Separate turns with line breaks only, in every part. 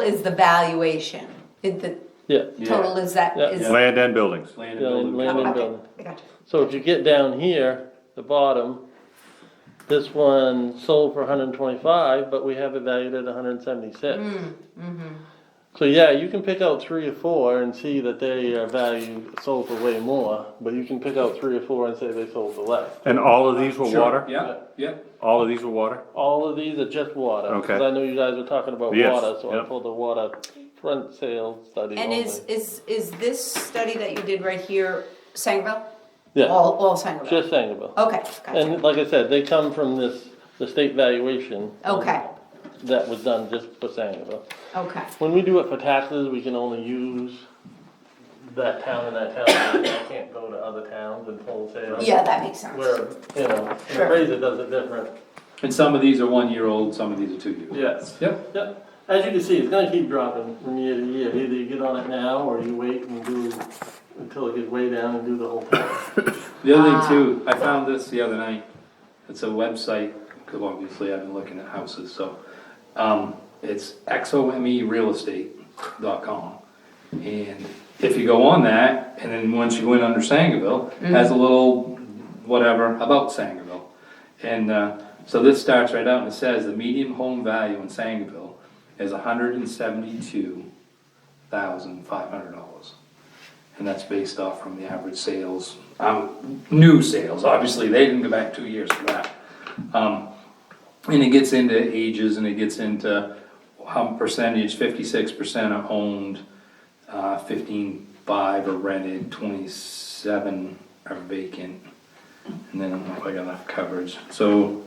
is the valuation, It- the
Yeah,
total is that,
Yeah.
is.
Land and buildings.
Land and
yeah,
building.
land and
Okay,
building.
I got you.
So if you get down here, the bottom, this one sold for hundred and twenty-five, but we have it valued at hundred and
Mm,
seventy-six.
mm-hmm.
So yeah, you can pick out three or four and see that they are valued, sold for way more, but you can pick out three or four and say they sold for less.
And all of these were
Sure,
water?
Yeah, yeah,
All of these were water?
All of these are just water.
Okay.
Because I know you guys were talking about
Yes,
water, so I
yep.
pulled the water front sale study
And
only.
is, is, is this study that you did right here Sangerville?
Yeah,
All, all Sangerville?
just Sangerville.
Okay,
And
gotcha,
like I said, they come from this, the state valuation.
okay,
That was done just for Sangerville.
okay,
When we do it for taxes, we can only use that town and that town. I can't go to other towns and pull sales.
yeah, that makes sense.
Where, you know, an
Sure.
appraiser does it different.
and some of these are one year old, some of these are two year old.
Yes.
Yep,
Yep. As you can see, it's gonna keep dropping from year to year. Either you get on it now or you wait and do, until it gets way down and do the whole thing.
the other
Ah.
thing too, I found this the other night, it's a website, because obviously I've been looking at houses, so. Um, it's E xomerealestate.com, and if you go on that, and then once you go in under Sangerville, it has a little whatever about Sangerville. And, uh, so this starts right out and it says the median home value in Sangerville is hundred and seventy-two thousand five hundred dollars. And that's based off from the average sales, um, new sales, obviously, they didn't go back two years for that. Um, and it gets into ages and it gets into how percentage, fifty-six percent are owned, uh, fifteen-five are rented, twenty-seven are vacant. And then I don't know if I got enough coverage, so.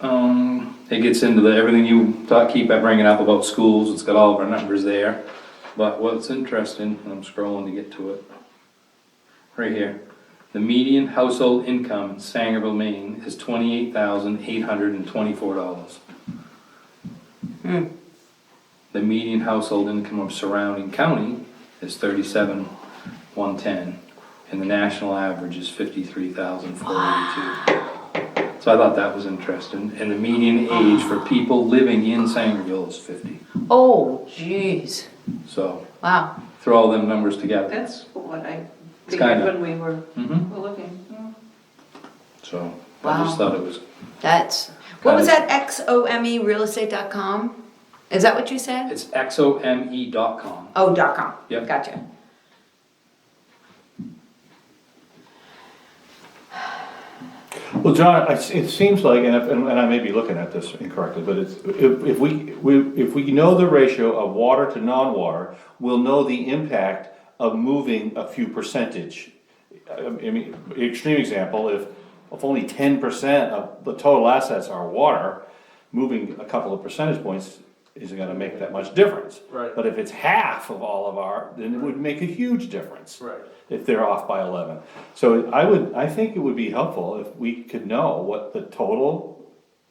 Um, it gets into the, everything you thought, keep bringing up about schools, it's got all of our numbers there. But what's interesting, and I'm scrolling to get to it, right here. The median household income in Sangerville, Maine is twenty-eight thousand eight hundred and twenty-four dollars. The median household income of surrounding county is thirty-seven one ten, and the national average is fifty-three thousand four eighty-two. So I thought that was interesting, and the median age for people living in Sangerville is fifty,
Oh, jeez,
so
wow.
throw all them numbers together.
That's what I
It's
figured
kinda-
when we were,
Mhm.
were looking. yeah.
So, I just
Wow.
thought it was,
That's, what
Got
was
it.
that, XOME realestate.com? Is that what you said?
it's E xome.com.
Oh, dot com.
Yep.
Gotcha.
Well, John, I- it seems like, and if- and I may be looking at this incorrectly, but it's, if, if we, we- if we know the ratio of water to non-water, we'll know the impact of moving a few percentage. I I mean, extreme example, if, if only ten percent of the total assets are water, moving a couple of percentage points isn't gonna make that much difference.
Right.
But if it's half of all of our, then it would make a huge difference
Right.
if they're off by eleven. So I would, I think it would be helpful if we could know what the total,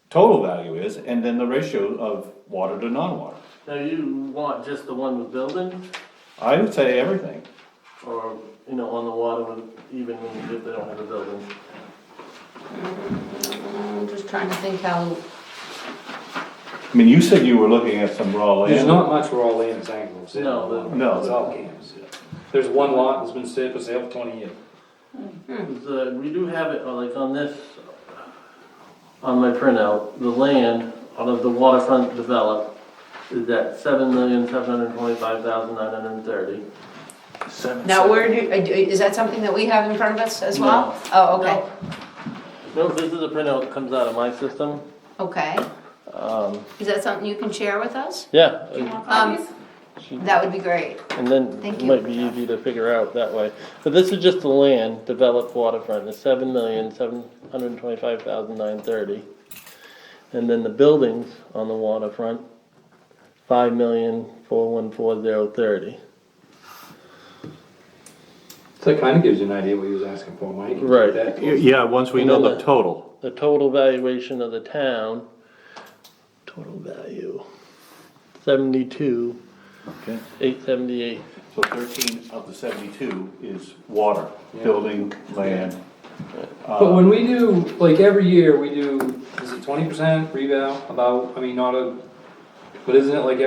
total value is, and then the ratio of water to non-water.
Now you want just the one with buildings
I would say everything.
or, you know, on the water with, even when if they don't have a building?
I'm just trying to think how,
I mean, you said you were looking at some raw land.
There's not much raw land in Sangerville. is there?
No, there-
no.
It's all camps, yeah. There's one lot that's been set for sale for twenty years.
Is, uh, we do have it, uh, like on this, on my printout, the land out of the waterfront developed is at seven million, seven hundred twenty-five thousand, nine hundred and thirty.
now where do, uh, is that something that we have in front of us as well? Oh, okay,
No, this is a printout that comes out of my system.
okay.
Um,
Is that something you can share with us? Um,
yeah,
Do you
and-
want copies?
That would be great.
and then
Thank
it
you.
might be easy to figure out that way. But this is just the land developed waterfront, it's seven million, seven hundred twenty-five thousand, nine thirty. And then the buildings on the waterfront, five million, four one four zero thirty.
So that kinda gives you an idea what he was asking for, Mike.
Right.
That-
Yeah, once we
know the
total.
the total valuation of the town, total value, seventy-two,
Okay,
eight seventy-eight.
so thirteen of the seventy-two is water, building, land.
But when we do, like, every year, we do, is it twenty percent revale, about, I mean, not a, but isn't it like